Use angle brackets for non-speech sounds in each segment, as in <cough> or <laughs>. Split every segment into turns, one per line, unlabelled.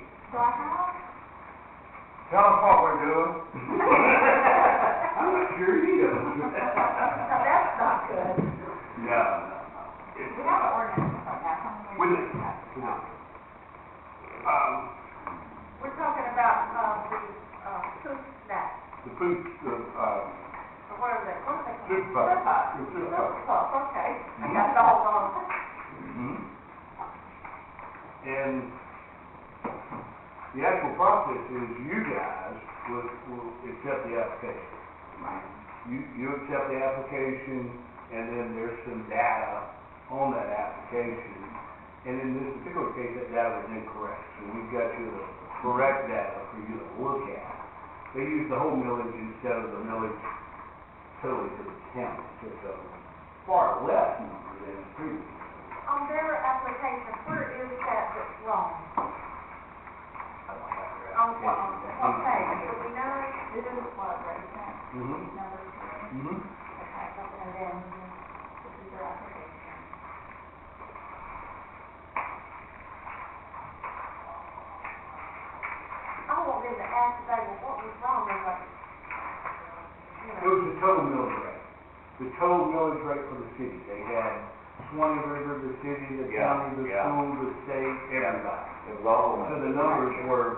Do I have?
Tell us what we're doing.
I'm not sure
<laughs>
either.
No, that's not good.
No.
We have an ordinance like that. How many
We
years ago?
do. No. Um,
We're talking about, um, the, uh, food snacks,
the food, the, uh,
or what are they, what are they? called?
Fruit bug.
Fruit
Fruit
bug.
bug.
Fruit bug, okay. I got the whole on.
Mm-hmm.
and the actual process is you guys will, will accept the application. You, you accept the application, and then there's some data on that application. And in this particular case, that data was incorrect, so we've got you the correct data for you to look at. They used the whole millage instead of the millage totally to the county, so it's a far less number than the previous.
On their application, where is that that's wrong?
I don't have your
On what, on
application.
what page? Do we know? This is what, right now,
Mhm.
number three.
Mhm.
Okay, and then this is their application. I want them to ask today, well, what was wrong, and like, you
It
know,
was the total millage rate, the total millage rate for the city. They had Swanee River, the city, the
Yeah,
county, the
yeah.
school, the state, everybody.
It was all
So the numbers were,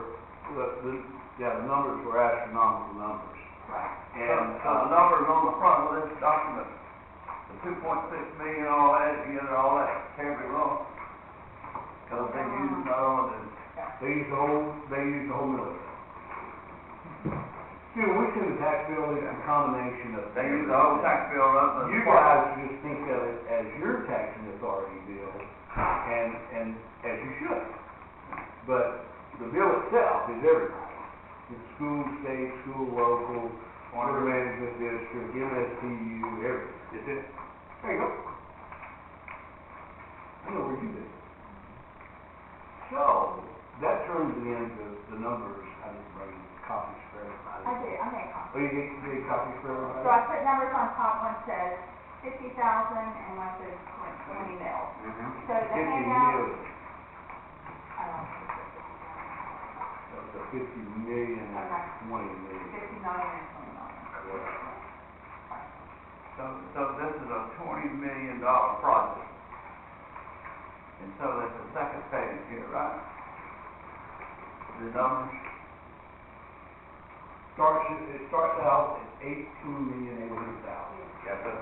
the, the, yeah, the numbers were astronomical numbers.
right,
And,
So
uh,
the numbers on the front of this document, the two point six million, all that, you know, all that, can't be wrong. Cause they uh, used not only the
they used the whole, they used the whole millage. rate. Dude, we see the tax bill is a combination of.
They use the whole tax bill up to.
You guys just think of it as your taxing authority bill, and, and as you should. But the bill itself is everybody. It's school, state, school, local, water management district, MSTU, everything.
Is it?
There you go. I know where you live. So, that turns it into the numbers, I didn't bring copies
I
for everybody.
did, I made a copy.
Oh, you get, you get copies for everybody?
So I put numbers on top, one says fifty thousand, and one says twenty mil.
Mm-hmm.
So the
Fifty
handout,
million. That was a fifty million and
Okay.
twenty
um,
million.
fifty million and twenty million.
So, so this is a twenty million dollar project. And so that's the second page here, right? The numbers,
Starts, it starts out at eighteen million eight hundred thousand.
yes, sir.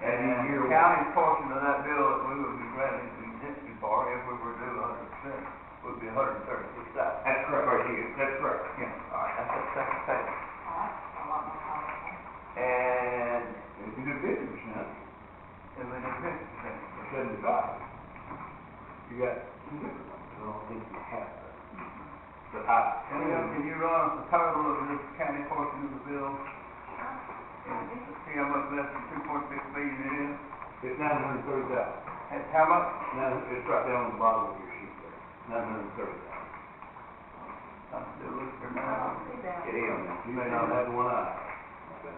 And
And
year
the
one.
county's portion of that bill that we would be granted contingency for, if we were due hundred percent, would be hundred and thirty-six thousand.
That's correct, right here, that's correct.
Yeah, all right, that's the second page.
Oh, that's a lot more complicated.
And,
If you do fifty percent,
and then the fifty percent.
or seventy-five, you got two different ones, I don't think you have that. But I,
And then can you run us the total of this county portion of the bill? And see how much less than two point six million it is?
it's nine hundred thirty thousand.
That's how much?
Now, it's right down on the bottom of your sheet there, nine hundred thirty thousand.
I'm still looking for
I
nine.
don't see that.
You may not have one eye. but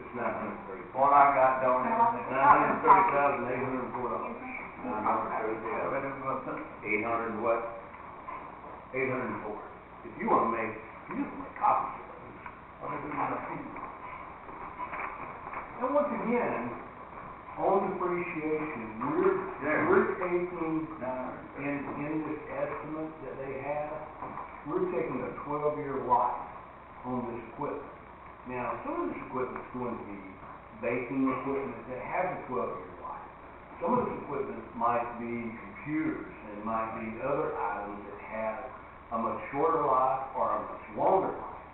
It's nine hundred thirty.
What I got down there.
Nine hundred thirty thousand eight hundred and four dollars.
Eight hundred what?
Eight hundred and four. If you wanna make, you just make copies of those.
What is it in the fee?
And once again, on depreciation, we're,
There.
we're taking,
Nine
in,
hundred.
in this estimate that they have, we're taking a twelve-year life on this equipment. Now, some of this equipment's going to be baking equipment that has a twelve-year life. Some of this equipment might be computers and might be other items that have a much shorter life or a much longer life.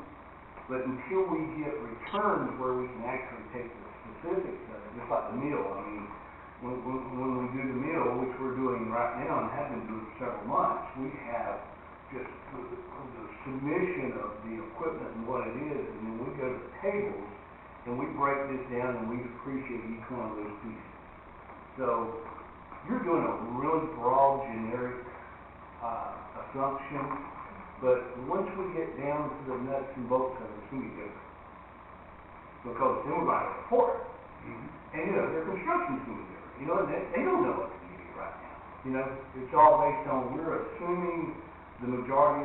But until we get returns where we can actually take the specifics of it, just like the meal, I mean, when, when, when we do the meal, which we're doing right now and have been doing for several months, we have just the, the submission of the equipment and what it is, and then we go to the tables and we break this down and we depreciate each one of those pieces. So, you're doing a really broad generic, uh, assumption, but once we get down to the nuts and bolts of it, it's gonna be different. Because then we're gonna report,
Mhm.
and, you know, their construction's gonna be different, you know, they, they don't know what to do right now. You know, it's all based on, we're assuming the majority